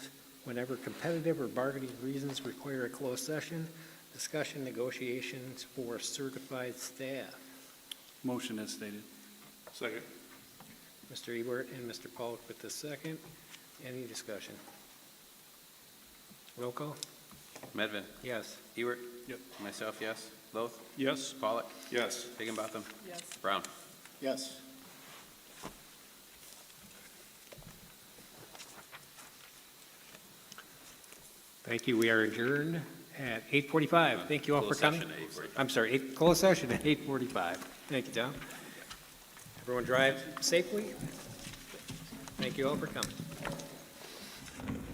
whenever competitive or bargaining reasons require a closed session, discussion negotiations for certified staff. Motion as stated. Second. Mr. Ebert and Mr. Polk with the second. Any discussion? Roll call? Medvin, Yes. Ewert. Yep. Myself, yes. Loth, Yes. Pollak, Yes. Higginbotham, Yes. Brown. Yes. Thank you. We are adjourned at 8:45. Thank you all for Closed coming. session at 8:45. I'm sorry, eight- closed session at 8:45. Thank you, Tom. Everyone drive safely. Thank you all for coming.